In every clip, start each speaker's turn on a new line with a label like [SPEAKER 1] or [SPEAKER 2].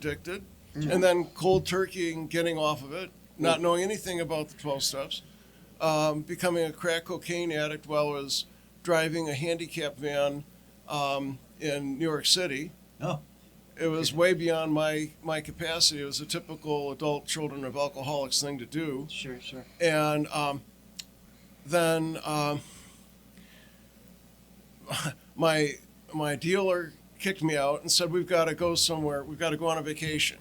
[SPEAKER 1] addicted,
[SPEAKER 2] Mm-hmm.
[SPEAKER 1] and then cold turkey and getting off of it, not knowing anything about the 12 steps, um, becoming a crack cocaine addict while I was driving a handicap van um, in New York City.
[SPEAKER 2] Oh.
[SPEAKER 1] It was way beyond my, my capacity. It was a typical adult children of alcoholics thing to do.
[SPEAKER 2] Sure, sure.
[SPEAKER 1] And um, then um, my my dealer kicked me out and said, "We've got to go somewhere. We've got to go on a vacation."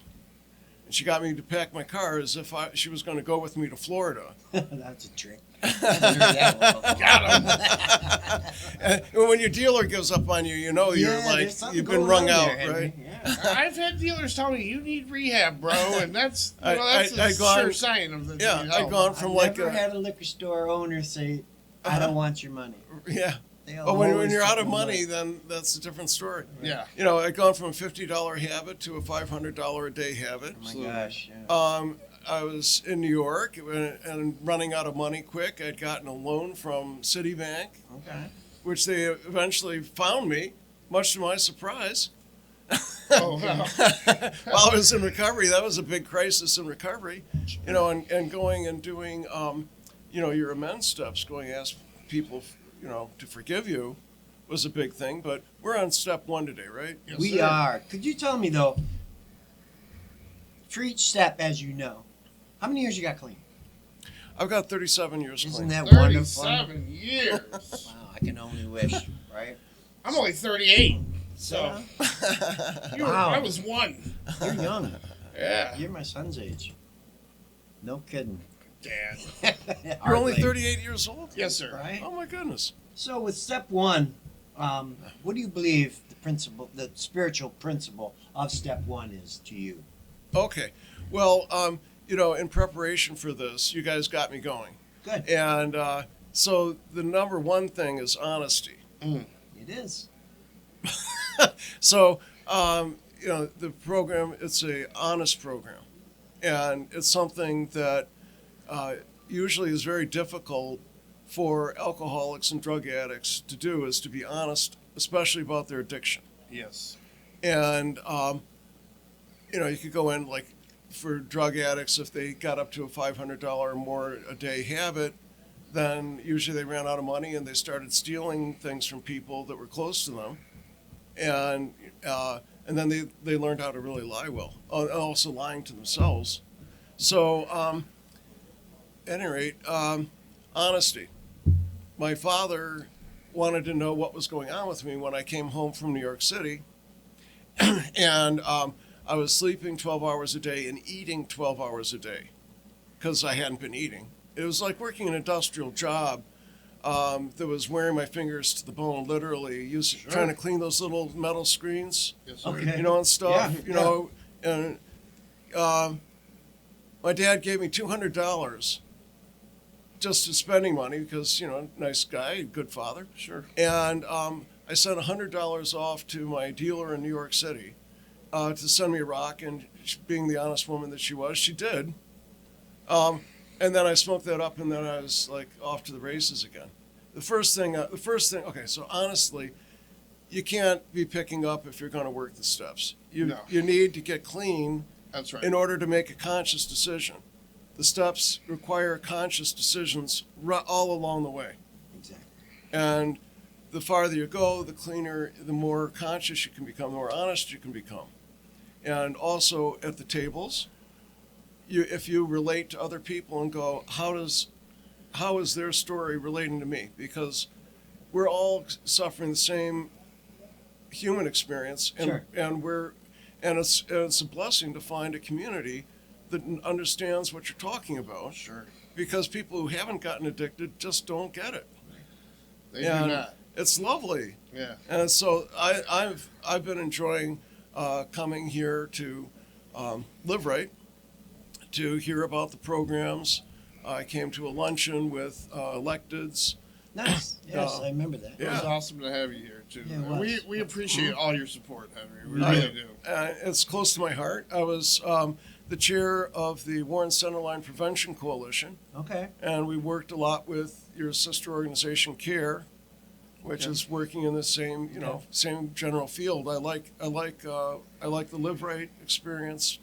[SPEAKER 1] And she got me to pack my car as if I, she was going to go with me to Florida.
[SPEAKER 2] That's a trick. Got him.
[SPEAKER 1] And when your dealer gives up on you, you know you're like you've been wrung out, right?
[SPEAKER 2] Yeah.
[SPEAKER 3] I've had dealers tell me you need rehab, bro, and that's you
[SPEAKER 1] I-
[SPEAKER 3] know, that's
[SPEAKER 1] I-
[SPEAKER 3] a
[SPEAKER 1] I gone-
[SPEAKER 3] sure sign of the
[SPEAKER 1] Yeah,
[SPEAKER 3] you
[SPEAKER 1] I've
[SPEAKER 3] know.
[SPEAKER 1] gone
[SPEAKER 2] I've
[SPEAKER 1] from like
[SPEAKER 2] never
[SPEAKER 1] a,
[SPEAKER 2] had a liquor store owner say, "I
[SPEAKER 1] Uh-huh.
[SPEAKER 2] don't want your money."
[SPEAKER 1] yeah.
[SPEAKER 2] They
[SPEAKER 1] But when, when
[SPEAKER 2] always
[SPEAKER 1] you're out of
[SPEAKER 2] fucking want
[SPEAKER 1] money,
[SPEAKER 2] it.
[SPEAKER 1] then that's a different story.
[SPEAKER 3] Yeah,
[SPEAKER 1] You know, I'd gone from a fifty dollar habit to a five hundred dollar a day habit.
[SPEAKER 2] oh my gosh. Yeah.
[SPEAKER 1] Um, I was in New York and and running out of money quick. I'd gotten a loan from Citibank,
[SPEAKER 2] okay.
[SPEAKER 1] which they eventually found me, much to my surprise.
[SPEAKER 3] Oh, wow.
[SPEAKER 1] While I was in recovery, that was a big crisis in recovery, you know, and, and going and doing, um, you know, your amends steps, going to ask people, you know, to forgive you was a big thing. But we're on step one today, right?
[SPEAKER 3] Yes,
[SPEAKER 2] we
[SPEAKER 3] sir.
[SPEAKER 2] are. Could you tell me though? For each step, as you know, how many years you got clean?
[SPEAKER 1] I've got 37 years
[SPEAKER 2] Isn't
[SPEAKER 1] clean.
[SPEAKER 2] that wonderful? Wow,
[SPEAKER 3] thirty-seven years.
[SPEAKER 2] I can only wish, right?
[SPEAKER 3] I'm only thirty-eight, so you were,
[SPEAKER 2] Wow.
[SPEAKER 3] I was one.
[SPEAKER 2] You're young.
[SPEAKER 3] Yeah,
[SPEAKER 2] You're my son's age. No kidding.
[SPEAKER 3] Dad.
[SPEAKER 1] You're
[SPEAKER 2] Hardly.
[SPEAKER 1] only 38 years old?
[SPEAKER 3] Yes, sir.
[SPEAKER 2] Right?
[SPEAKER 1] Oh, my goodness.
[SPEAKER 2] So with step one, um, what do you believe the principle, the spiritual principle of step one is to you?
[SPEAKER 1] Okay. Well, um, you know, in preparation for this, you guys got me going.
[SPEAKER 2] Good.
[SPEAKER 1] And uh, so the number one thing is honesty.
[SPEAKER 2] It is.
[SPEAKER 1] So, um, you know, the program, it's a honest program. And it's something that uh, usually is very difficult for alcoholics and drug addicts to do is to be honest, especially about their addiction.
[SPEAKER 3] Yes.
[SPEAKER 1] and um, you know you could go in like for drug addicts if they got up to a $500 or more a day habit then usually they ran out of money and they started stealing things from people that were close to them and uh, and then they, they learned how to really lie well uh, and also lying to themselves so um, at any rate um, honesty my father wanted to know what was going on with me when i came home from new york city and um, I was sleeping 12 hours a day and eating 12 hours a day because I hadn't been eating. It was like working an industrial job um, that was wearing my fingers to the bone, literally, using,
[SPEAKER 3] Sure.
[SPEAKER 1] trying to clean those little metal screens,
[SPEAKER 3] Yes, sir.
[SPEAKER 2] Okay.
[SPEAKER 1] you know, and stuff,
[SPEAKER 2] Yeah,
[SPEAKER 1] you know. And um, my dad gave me $200 just as spending money because, you know, nice guy, good father.
[SPEAKER 3] Sure.
[SPEAKER 1] And um, I sent $100 off to my dealer in New York City uh, to send me a rock. And she, being the honest woman that she was, she did. Um, and then I smoked that up, and then I was like off to the races again. The first thing, uh, the first thing, okay, so honestly, you can't be picking up if you're going to work the steps. You,
[SPEAKER 3] No.
[SPEAKER 1] you need to get clean
[SPEAKER 3] That's right.
[SPEAKER 1] in order to make a conscious decision. The steps require conscious decisions ru- all along the way.
[SPEAKER 2] Exactly.
[SPEAKER 1] And the farther you go, the cleaner, the more conscious you can become, the more honest you can become. And also at the tables, you, if you relate to other people and go, how does, how is their story relating to me? Because we're all suffering the same human experience, and
[SPEAKER 2] Sure.
[SPEAKER 1] and we're, and it's and it's a blessing to find a community that understands what you're talking about.
[SPEAKER 3] Sure.
[SPEAKER 1] Because people who haven't gotten addicted just don't get it
[SPEAKER 3] They
[SPEAKER 1] Yeah.
[SPEAKER 3] do not.
[SPEAKER 1] it's lovely.
[SPEAKER 3] Yeah.
[SPEAKER 1] And so I, I've I've been enjoying uh, coming here to um, live right, to hear about the programs. I came to a luncheon with uh, electeds.
[SPEAKER 2] Nice. Yes,
[SPEAKER 1] Uh,
[SPEAKER 2] I remember that.
[SPEAKER 3] It was
[SPEAKER 1] Yeah.
[SPEAKER 3] awesome to have you here too.
[SPEAKER 2] Yeah, it was.
[SPEAKER 3] we we appreciate all your support, Henry. We
[SPEAKER 1] I-
[SPEAKER 3] really do.
[SPEAKER 1] Uh, it's close to my heart. I was um, the chair of the Warren Centerline Prevention Coalition,
[SPEAKER 2] Okay.
[SPEAKER 1] and we worked a lot with your sister organization, CARE, which is working in the same, you know, same general field. I like, I like, uh, I like the live right experience